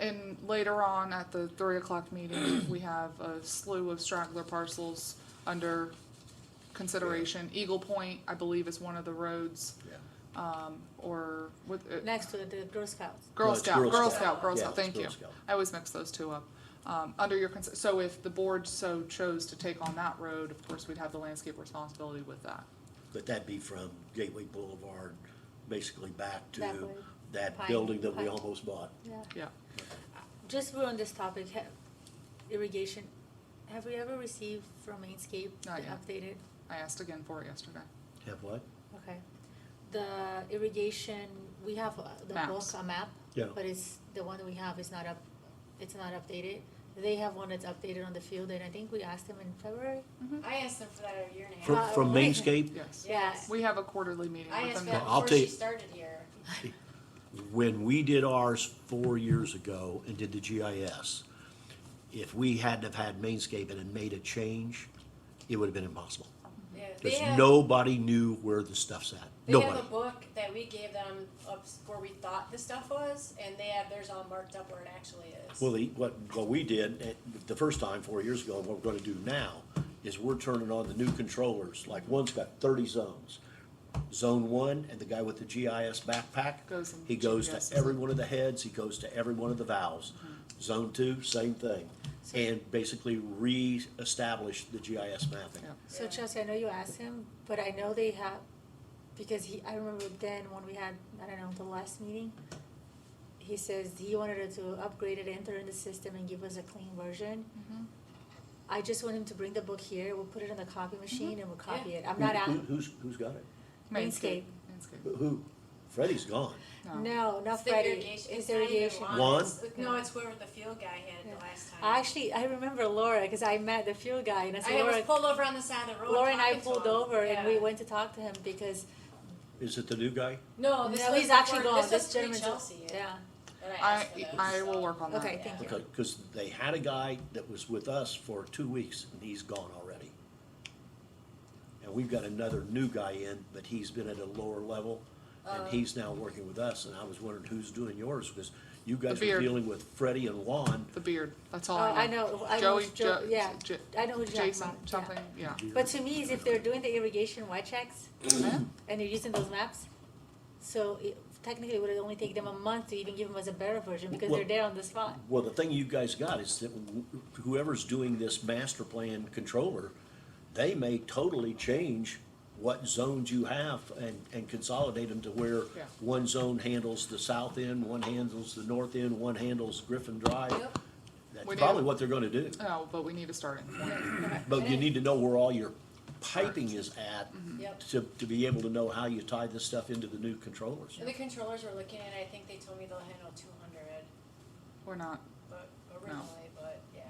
and later on at the three o'clock meeting, we have a slew of straggler parcels under consideration. Eagle Point, I believe, is one of the roads, Yeah. or with, uh, next to the Girl Scouts. No, Girl it's Scout, Girl Girl Scout. Scout, Girl Yeah, Scout, it's thank Girl you. Scout. I always mix those two up. Um, under your, cons- so if the board so chose to take on that road, of course, we'd have the landscape responsibility with that. But that'd be from Gateway Boulevard, basically back That to way. that Pine- building that we Pine. almost bought. Yeah. Yeah. Just we're on this topic, ha- irrigation, have we ever received from Mainscape the Not yet. updated? I asked again for it yesterday. Have what? Okay. The irrigation, we have uh, the book, Maps. a map, Yeah. but it's, the one we have is not up, it's not updated. They have one that's updated on the field, and I think we asked them in February. I asked them for that a year and a half. From, Uh, from we- Mainscape, Yes. Yeah. We have a quarterly meeting I with asked them. for that now. I'll before she take- started here. when we did ours four years ago and did the GIS, if we hadn't have had Mainscape and had made a change, it would have been impossible. Yeah, they Because have- nobody knew where the stuff's at. They Nobody. have a book that we gave them of where we thought the stuff was, and they have theirs all marked up where it actually is. Well, the, what, what we did eh, the first time, four years ago, and what we're gonna do now, is we're turning on the new controllers, like one's got thirty zones. Zone one, and the guy with the GIS backpack, Goes and he goes GIS is to it. every one of the heads, he goes to every one of the valves. Zone two, same thing, and basically re-establish the GIS mapping. Yeah. So Yeah. Chelsea, I know you asked him, but I know they have, because he, I remember then when we had, I don't know, the last meeting, he says he wanted us to upgrade it, enter in the system and give us a clean version. Mm-hmm. I just want him to bring the book here, we'll put it in the copy Mm-hmm. machine and we'll copy it. I'm Who- not, who- a- Who's, who's got it? Mainscape. Mainscape. Who- Who? Freddie's gone. no, It's not the Freddie, irrigation- it's not even irrigation. lawn, Lawn? it's- No, it's where the field guy had it Yeah. the last time. I Actually, I remember Laura, cause I met the fuel guy and I I said, was Laura, pulled over on the side of the road. Laura and I talking to pulled him. over and we Yeah. went to talk to him because, Is it the new guy? No, this no, was he's actually before- gone, This this was gentleman's. pre-Chelsea. Yeah, that I I, asked for those, I will so. work on that. okay, thank you. Okay, because they had a guy that was with us for two weeks, and he's gone already. And we've got another new guy in, but he's been at a lower level, Uh. and he's now working with us, and I was wondering who's doing yours, because you guys were beard. dealing with Freddie and Juan. The beard, that's all Oh, I I know. know, I know, Joey, Jo- Jo- yeah, J- I know who you're talking Jason, about, yeah. something, yeah. But to me, is if they're doing the irrigation white checks Yeah. and you're using those maps, so it, technically it would only take them a month to even give us a better version because Well- they're there on the spot. Well, the thing you guys got is that whoever's doing this master plan controller, they may totally change what zones you have and, and consolidate them to where Yeah. one zone handles the south end, one handles the north end, one handles Griffin Drive. Yep. We That's do. probably what they're gonna do. No, Oh, but we need to start it. But you need to know where all your piping is at Mm-hmm. Yep. to, to be able to know how you tie this stuff into the new controllers. And the controllers were looking at, I think they told me they'll handle two hundred, We're not, but originally, but yeah.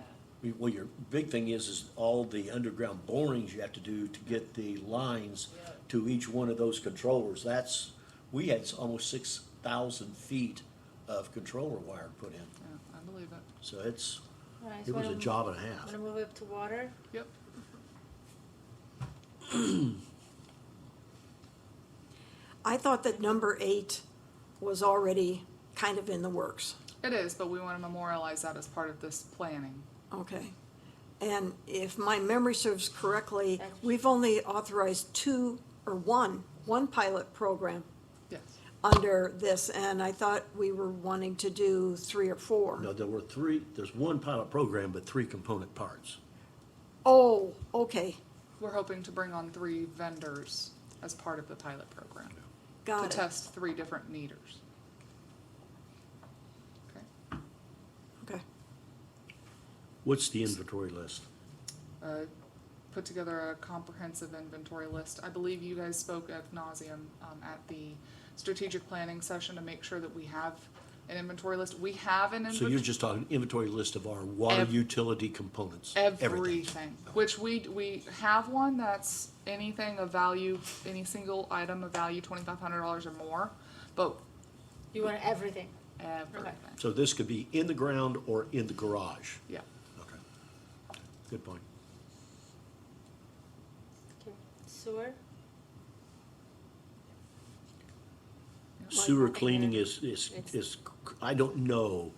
We- Well, your big thing is, is all the underground borings you have to do to get the lines Yeah. to each one of those controllers. That's, we had almost six thousand feet of controller wire put in, yeah, I believe it. so it's, Alright, so it was a wanna- job and a half. Wanna move up to water? Yep. I thought that number eight was already kind of in the works, It is, but we want to memorialize that as part of this planning. okay? And if my memory serves correctly, we've only authorized two or one, one pilot program Yes. under this, and I thought we were wanting to do three or No, four. there were three, there's one pilot program, but three component parts. Oh, okay, We're hoping to bring on three vendors as part of the pilot program to got it, test three different meters. Okay. okay. What's the inventory list? uh, put together a comprehensive inventory list. I believe you guys spoke ad nauseum um, at the strategic planning session to make sure that we have an inventory list. We have an So you're inventory. just talking inventory list of our water Ev- utility components, everything. Everything, which we, we have one that's anything of value, any single item of value, twenty-five hundred dollars or more, but You want everything? everything, So this could be in the ground or in the garage. yeah. Okay. Good point. Okay. Sewer? Sewer Like, cleaning is, is, it's- is, I don't know